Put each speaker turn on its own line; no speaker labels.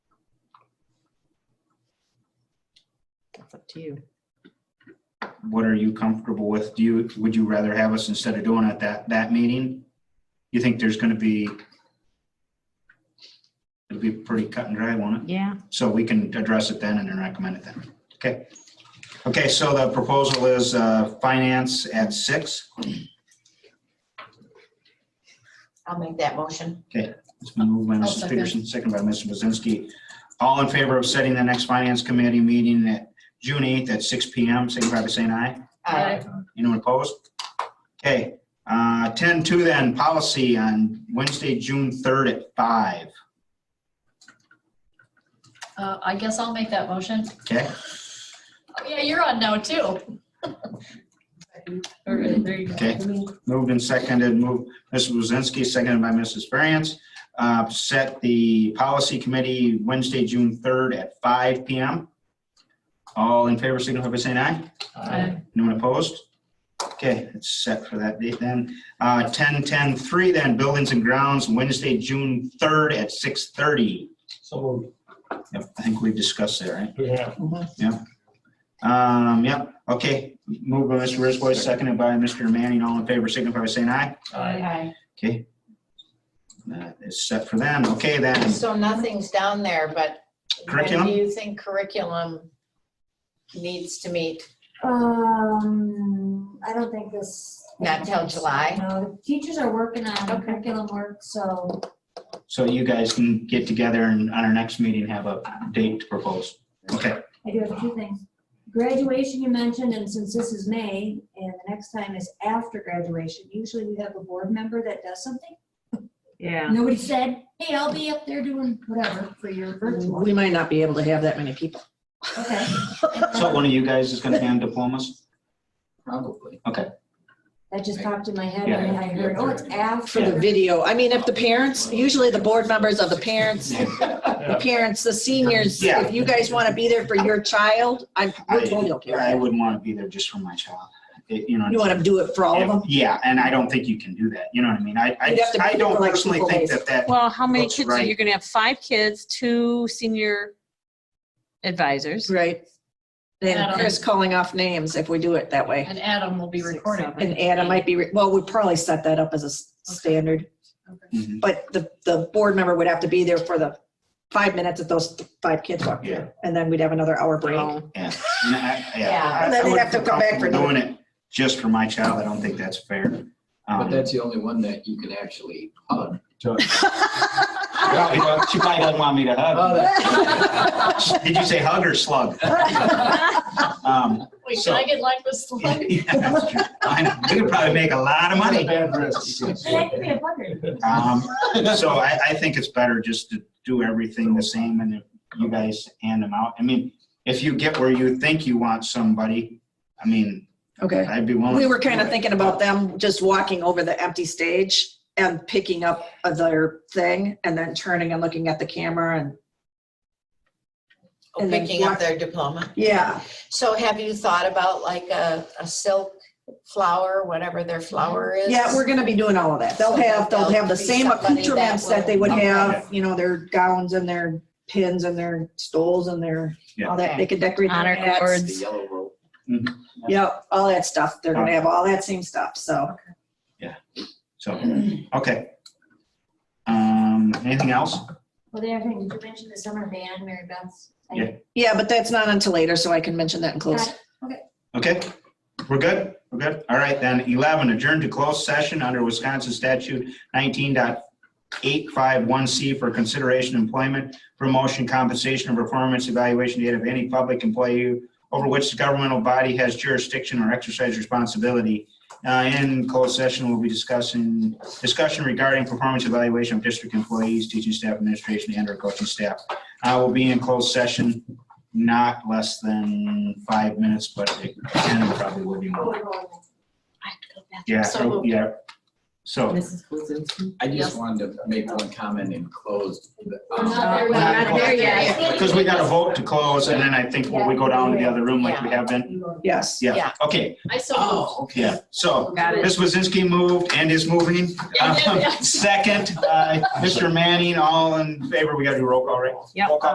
It's up to you.
What are you comfortable with? Do you, would you rather have us instead of doing it that, that meeting? You think there's gonna be? It'll be pretty cut and dry, won't it?
Yeah,
So we can address it then and then recommend it then. Okay. Okay, so the proposal is uh, finance at six.
I'll make that motion.
It's been moved by
I'll
Mrs.
second.
Peterson, second by Mr. Buzinski. All in favor of setting the next finance committee meeting at June 8th at six PM, signify by saying aye.
Aye.
Anyone opposed? Okay, uh, 10-2 then, policy on Wednesday, June 3rd at five.
Uh, I guess I'll make that motion.
Okay,
Oh, yeah, you're on now too. All right, there you go.
okay. Moved and seconded, moved, Mrs. Buzinski, seconded by Mrs. Ferriant. Uh, Set the policy committee Wednesday, June 3rd at five PM. All in favor, signify by saying aye.
Aye.
Anyone opposed? Okay, it's set for that date then. Uh, ten, ten, three then, buildings and grounds, Wednesday, June third at six thirty.
So moved.
Yep, I think we discussed that, right?
Yeah.
Um, yep, okay, moved by Mr. Brisboy, seconded by Mr. Manning, all in favor, signify by saying aye.
Aye.
Aye.
Okay. That is set for them, okay then,
So nothing's down there, but when
Curriculum?
do you think curriculum needs to meet?
Um, I don't think this.
Not till July?
No, teachers are working on
Okay.
curriculum work, so
so you guys can get together and on our next meeting, have a date to propose. Okay,
I do have a few things. Graduation you mentioned, and since this is May, and the next time is after graduation, usually we have a board member that does something.
yeah.
Nobody said, hey, I'll be up there doing whatever for your virtual.
We might not be able to have that many people.
Okay.
so one of you guys is gonna hand diplomas?
Probably.
That just popped in my head, and I heard, oh, it's
For the
after.
video, I mean, if the parents, usually the board members of the parents, the parents, the seniors,
Yeah.
if you guys want to be there for your child, I'm,
I-
I totally okay. with
I
that.
wouldn't want to be there just for my child. It- You know.
You want to do it for all of them?
Yeah, and I don't think you can do that. You know what I mean? I, I,
You'd have to
I
pay
don't
for, like,
personally
people
think
days.
that that,
Well, how many
Looks
kids are
right.
you gonna have? Five kids, two senior advisors.
Right. Then
Adam.
Chris calling off names if we do it that way.
And Adam will be
Six,
recording.
seven.
And Adam might be, re- well, we'd probably set that up as a s-
Okay.
standard,
Okay.
Mhm.
but the, the board member would have to be there for the five minutes that those five kids walk
Yeah.
through. And then we'd have another hour break.
Oh,
yeah. And I-
Yeah.
I- I
And then they'd
wouldn't
have to
feel
come back for
comfortable Doing it just for my child, I don't think that's fair.
But
Um,
that's the only one that you can actually hug.
well, She probably doesn't want me to hug. Did you say hug or slug? Um,
Wait,
So-
can I get like this?
yeah, that's true. I- We could probably make a lot of money.
Bad risk.
And I could be a wonder.
Um, So I, I think it's better just to do everything the same and if you guys hand them out. I mean, if you get where you think you want somebody, I mean,
Okay.
I'd be willing.
We
to
were
do
kind of
it.
thinking about them just walking over the empty stage and picking up their thing and then turning and looking at the camera and, And then
Oh, Picking up
what-
their diploma?
yeah.
So have you thought about like a, a silk flower, whatever their flower is?
Yeah, we're gonna be doing all of that. They'll have, they'll have the same accoutrements that they would have, you know, their gowns and their pins and their stoles and their, all that. They could decorate their
Honor
hats.
cords.
The yellow rope.
Yep, all that stuff. They're gonna have all that same stuff, so.
So, okay. Um, anything else?
Well, the other thing, did you mention the summer band, Mary Beth's? I-
Yeah.
Yeah, but that's not until later, so I can mention that in close.
Okay, we're good, we're good. All right, then eleven, adjourn to closed session under Wisconsin statute 19.851 C for consideration employment, promotion, compensation, or performance evaluation data of any public employee over which the governmental body has jurisdiction or exercise responsibility. Uh, in closed session, we'll be discussing, discussion regarding performance evaluation of district employees, teaching staff, administration, and or coaching staff. I will be in closed session, not less than five minutes, but it can probably will be more. Yeah,
So-
yeah. So.
Mrs. Blazinski?
I
Yes.
just wanted to make one comment and close.
We're not there
Um,
yet.
We're not there
yet.
Because we got a vote to close and then I think when we go down to the other room like we have been.
Yes.
Yeah,
Yeah.
okay,
I so.
Oh, okay.
yeah. So
Got it.
Ms. Wazinski moved and is moving.
Yeah, yeah, yeah.
Second, by Mr. Manning, all in favor, we got to do roll call, right?
Yep.
Roll call.